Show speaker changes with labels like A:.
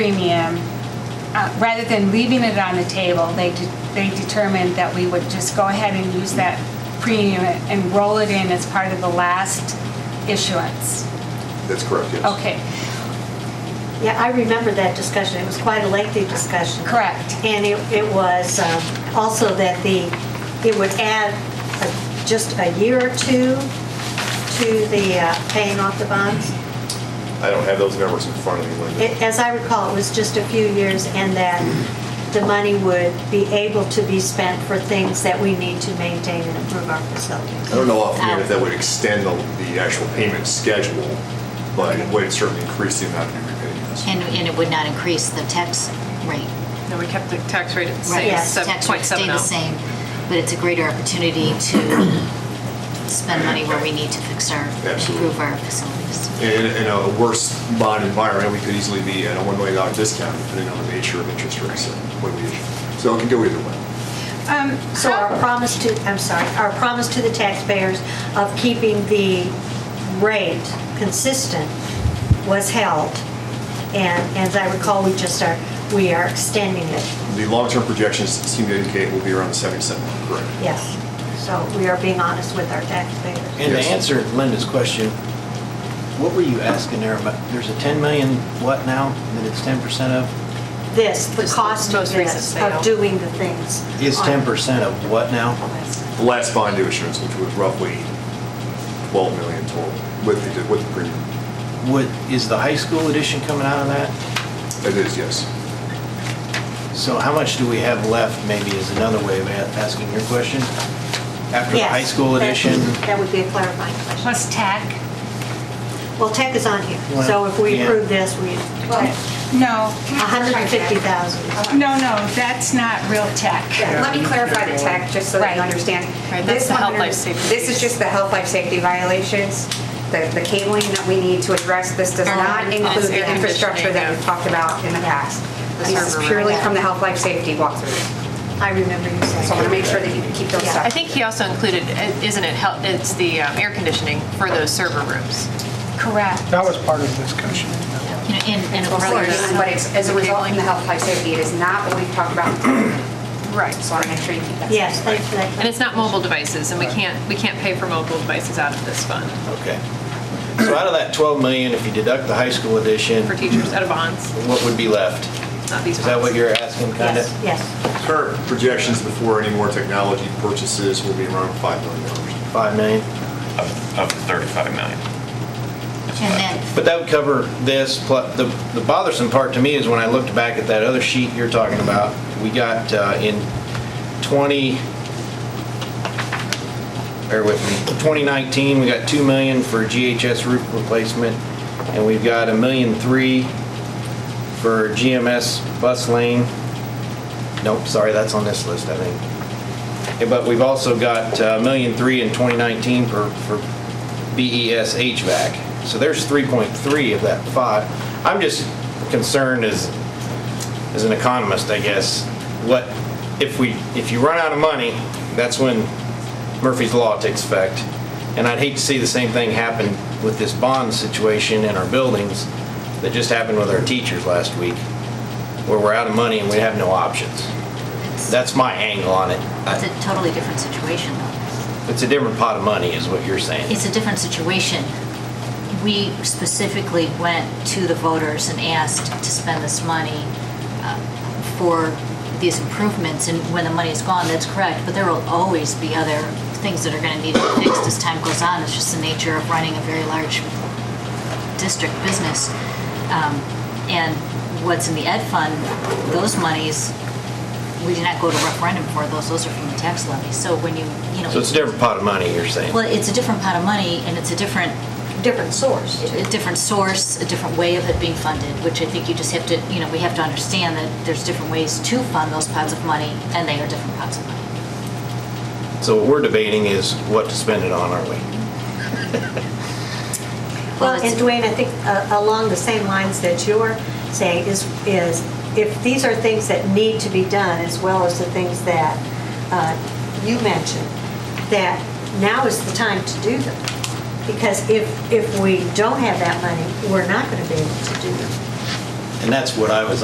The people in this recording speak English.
A: premium, uh, rather than leaving it on the table, they, de- they determined that we would just go ahead and use that premium and roll it in as part of the last issuance.
B: That's correct, yes.
A: Okay,
C: Yeah, I remember that discussion. It was quite a lengthy discussion.
A: correct.
C: And it, it was um, also that the, it would add a- just a year or two to the uh, paying off the bonds.
B: I don't have those numbers in front of me, Linda.
C: It- As I recall, it was just a few years and that the money would be able to be spent for things that we need to maintain and improve our
B: I
C: facilities.
B: don't know offhand if that would extend the, the actual payment schedule, but it would certainly increase the amount to be repaid, yes.
D: And, and it would not increase the tax rate.
E: No, we kept the tax rate at the
D: right?
E: same,
C: Yes,
E: seven
D: Tax rate
E: point seven
D: stayed the
E: oh.
D: same, but it's a greater opportunity to spend money where we need to fix our,
B: Absolutely.
D: improve our facilities.
B: In, in a worse bond environment, we could easily be at a $1 million discount depending on the nature of interest rates. that would be issued. So it can go either way.
A: Um,
C: So our
A: how-
C: promise to, I'm sorry, our promise to the taxpayers of keeping the rate consistent was held. And as I recall, we just are, we are extending it,
B: The long-term projections seem to indicate we'll be around the 77, mark, correct?
C: yes. So we are being honest with our taxpayers.
F: And to
B: Yes.
F: answer Linda's question, what were you asking there about, there's a 10 million what now that it's 10% of?
C: This, the
E: Just the
C: cost of
E: most recent
C: this,
E: sale.
C: of doing the things.
F: Is
C: on-
F: 10% of what now?
B: The last bond issuance, which was roughly 12 million total with the, with the premium.
F: Would, is the high school edition coming out of that?
B: It is, yes.
F: So how much do we have left, maybe is another way of a- asking your question? After the
C: Yes,
F: high school
C: that-
F: edition?
C: That would be a clarifying question.
A: Plus tech?
C: Well, tech is on here, so if we
F: Yeah.
C: approve this, we,
A: No.
C: 150,000.
A: No, no, that's not real tech.
G: Yeah, Let me clarify the tech, just so that you
A: Right.
G: understand.
E: Right, that's
G: This
E: the health,
G: 100
E: life, safety
G: This is
E: piece.
G: just the health, life, safety violations, the the cabling that we need to address. This does
E: Our
G: not
E: own
G: include
E: Um, air
G: the
E: conditioning,
G: infrastructure that
E: yeah.
G: we've talked about in the past.
E: The
G: This
E: server
G: is purely
E: room.
G: from the health, life, safety walkthrough.
C: I remember you saying.
G: So I want to make sure that you keep those
C: Yeah.
G: separate.
E: I think he also included, eh, isn't it, hel- it's the um, air conditioning for those server rooms.
A: Correct.
H: That was part of the discussion.
D: You know, and, and of
G: Of course,
D: course,
G: But it's, as a result in the health, life, safety, it is not what we've talked about.
E: Right.
G: So I want to make sure you keep that.
C: Yes,
G: separate.
C: thanks for that.
E: And it's not mobile devices, and we can't, we can't pay for mobile devices out of this fund
F: Okay. So out of that 12 million, if you deduct the high school edition,
E: for teachers, out of bonds,
F: what would be left?
E: not these
F: Is that what
E: bonds.
F: you're asking, kind of?
C: Yes, yes.
B: Current projections before any more technology purchases will be around $5 million.
F: 5 million?
I: of, of the 35 million.
D: and then
F: But that would cover this, plus, the, the bothersome part to me is when I looked back at that other sheet you're talking about, we got uh, in 20, bear with me, 2019, we got 2 million for GHS roof replacement, and we've got a million three for GMS bus lane. Nope, sorry, that's on this list, I think. Yeah, But we've also got a million three in 2019 for, E for BES HVAC. So there's 3.3 of that five. I'm just concerned as, as an economist, I guess, what, if we, if you run out of money, that's when Murphy's Law takes effect. And I'd hate to see the same thing happen with this bond situation in our buildings that just happened with our teachers last week, where we're out of money and we have no options.
D: it's
F: That's my angle on it.
D: it's
F: I-
D: a totally different situation though.
F: It's a different pot of money, is what you're saying.
D: It's a different situation. We specifically went to the voters and asked to spend this money uh, for these improvements, and when the money is gone, that's correct, but there will always be other things that are gonna need to be fixed as time goes on. It's just the nature of running a very large district business. Um, And what's in the ed fund, those monies, we do not go to referendum for those, those are from the tax levy. So when you, you know.
F: So it's a different pot of money, you're saying.
D: Well, it's a different pot of money, and it's a different,
C: Different source.
D: a different source, a different way of it being funded, which I think you just have to, you know, we have to understand that there's different ways to fund those pots of money, and they are different pots of money.
F: So what we're debating is what to spend it on, aren't we?
C: Well,
D: it's-
C: and Dwayne, I think uh, along the same lines that you're saying is, is if these are things that need to be done, as well as the things that uh, you mentioned, that now is the time to do them. Because if, if we don't have that money, we're not going to be able to do them.
F: And that's what I was